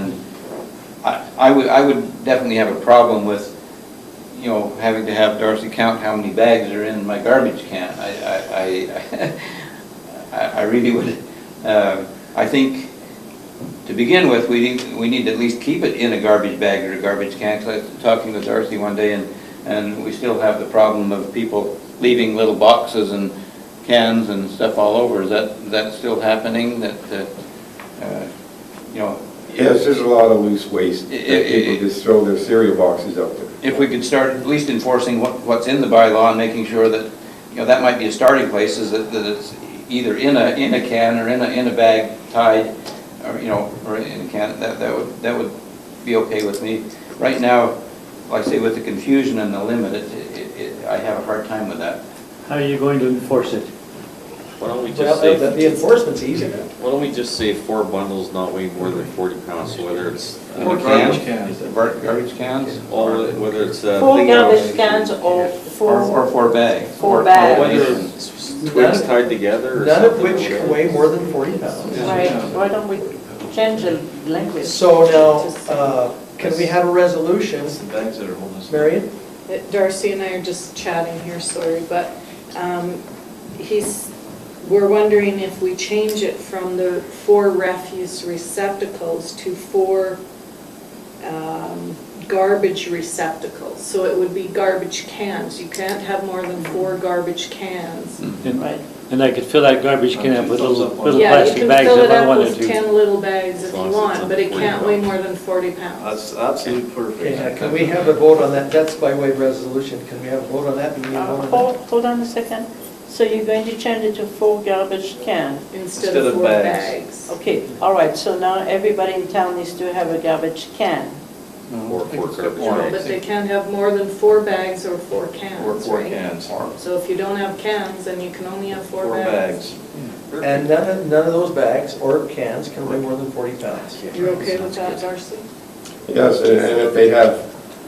And I, I would, I would definitely have a problem with, you know, having to have Darcy count how many bags are in my garbage can. I, I- I, I, I really would, uh, I think, to begin with, we need, we need to at least keep it in a garbage bag or a garbage can. 'Cause I was talking with Darcy one day and, and we still have the problem of people leaving little boxes and cans and stuff all over. Is that, is that still happening, that, uh, uh, you know? Yes, there's a lot of loose waste. I- I- that People just throw their cereal boxes out there. if we could start at least enforcing what, what's in the bylaw and making sure that, you know, that might be a starting place, is that, that it's either in a, in a can or in a, in a bag tied, or, you know, or in a can, that, that would, that would be okay with me. Right now, like I say, with the confusion and the limit, it, it, it- I have a hard time with that. How are you going to enforce it? Why don't we just Well, the the say, enforcement's easy then. why don't we just say four bundles not weighing more than forty pounds, so whether it's, Or uh, cans. Garbage cans? all, whether it's a. Four garbage cans or Or, four, or four bags? Four or- or bags. Whether even- it's twigs tied together or something. None of which whatever. weigh more than 40 pounds. right, why don't we change the language? So Just- now, uh, can we have a resolution, It's the bags that are holding us. Marion? that Darcy and I are just chatting here, sorry, but um, he's, we're wondering if we change it from the four refuse receptacles to four um, garbage receptacles. So it would be garbage cans. You can't have more than four garbage cans. And- Right, And I could fill that garbage can up with little, little Yeah, you plastic can bags fill if it I up with wanted to. 10 little bags if As you long as it's want, but it under can't 40 weigh more than 40 pounds. That's absolutely perfect. Yeah, Can we have a vote on that? That's by way of resolution. Can we have a vote on that? Do we need a Uh, vote on that? hold, hold on a second. So you're going to change it to four garbage cans? Instead of four bags. Okay, all right, so now everybody in town needs to have a garbage can. Or four garbage No, bags. but they can't have more than four bags or four cans, Or four right? cans. So if you don't have cans, then you can only have four Four bags. bags. And none of, none of those bags or cans can weigh more than 40 pounds. You're okay with that, Darcy? Yes, and and if they have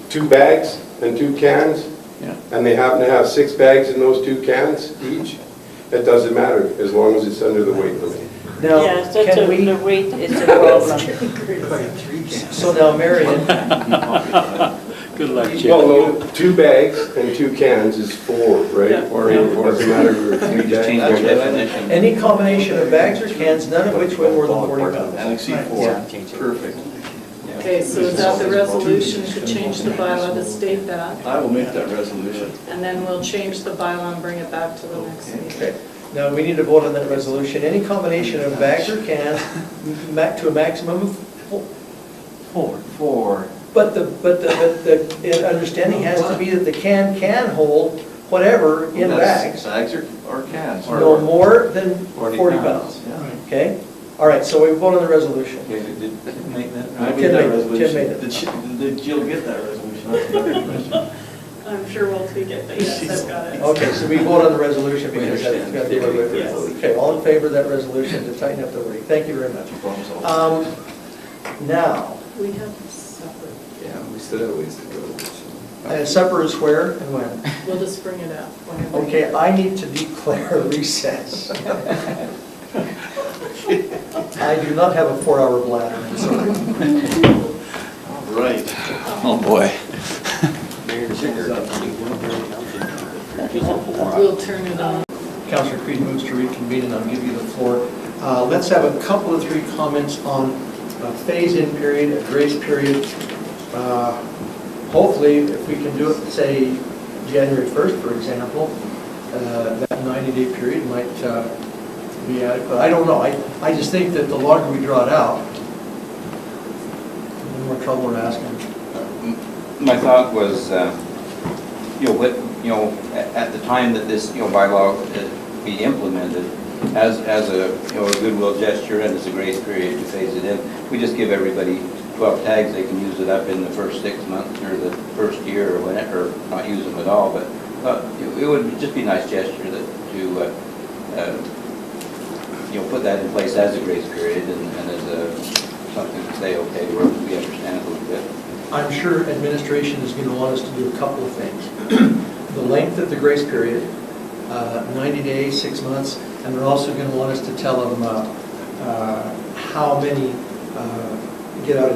two bags and two cans, Yeah. and they happen to have six bags in those two cans each, it doesn't matter, as long as it's under the weight limit. Now, Yes, that's can a- the we, weight is a problem. so now Marion, Good luck, Chip. Well, no, two bags and two cans is four, right? Yeah. Or it doesn't matter if it's We three just change bags. our definition. any combination of bags or cans, none of which weigh more than 40 And pounds. Hmm. exceed four. Yeah. Perfect. Yeah. Okay, so is that the resolution to change the bylaw to state that? I will make that resolution. And then we'll change the bylaw and bring it back to the next meeting. Okay. Now, we need to vote on that resolution. Any combination of bags or cans, ma- to a maximum of four. Four. Four. But the, but the, but the it- understanding has to be that the can can hold whatever in That's- bags, Bags or, or cans. no more than 40 40 pounds. pounds. Yeah. Okay? All right, so we vote on the resolution. Okay, did- did you make that? I Tim made made that it, Tim resolution. made it. Did she- Did Jill get that resolution? That's another question. I'm sure we'll tweak it, but yes, I've got it. Okay, so we vote on the resolution We because that's understand. got to be a Yes. resolution. Okay, all in favor of that resolution to tighten up the wording? Thank you very much. Problem solved. Um, Now, We have supper. Yeah, we still have ways to go. so. and supper is where and when? We'll just bring it up whenever. Okay, I need to declare recess. I do not have a four-hour bladder, I'm sorry. All Right. Oh, boy. We'll turn it on. Councilor Creed moves to reconvene, and I'll give you the floor. Uh, Let's have a couple of three comments on a phase-in period, a grace period. Uh, Hopefully, if we can do it, say, January 1st, for example, uh, that 90-day period might uh, be adequate. I don't know, I, I just think that the longer we draw it out, the more trouble we're asking. My thought was, uh, you know, what, you know, at at the time that this, you know, bylaw uh, be implemented, as, as a, you know, a goodwill gesture and as a grace period to phase it in, we just give everybody 12 tags, they can use it up in the first six months or the first year or whenever, or not use them at all, but uh, it it would just be a nice gesture that, to, uh, uh, you know, put that in place as a grace period and and as a, something to say, okay, we're- we understand a little bit. I'm sure administration is going to want us to do a couple of things. The length of the grace period, uh, 90 days, six months, and they're also going to want us to tell them uh, uh, how many uh, get out of